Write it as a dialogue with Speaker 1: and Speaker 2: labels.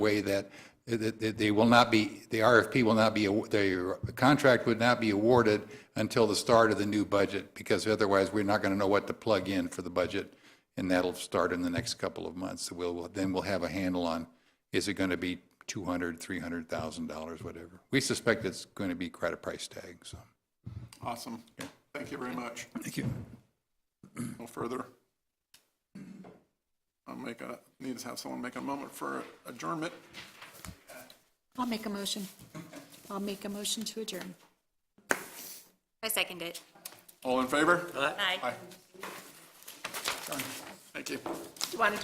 Speaker 1: way that, that that they will not be, the RFP will not be, the contract would not be awarded until the start of the new budget, because otherwise, we're not going to know what to plug in for the budget, and that'll start in the next couple of months. So we'll, then we'll have a handle on, is it going to be 200, 300,000 dollars, whatever. We suspect it's going to be quite a price tag, so.
Speaker 2: Awesome. Thank you very much.
Speaker 1: Thank you.
Speaker 2: No further. I'll make a, need to have someone make a moment for adjournment.
Speaker 3: I'll make a motion. I'll make a motion to adjourn.
Speaker 4: I second it.
Speaker 2: All in favor?
Speaker 4: Aye.
Speaker 2: Thank you.
Speaker 3: Do you want to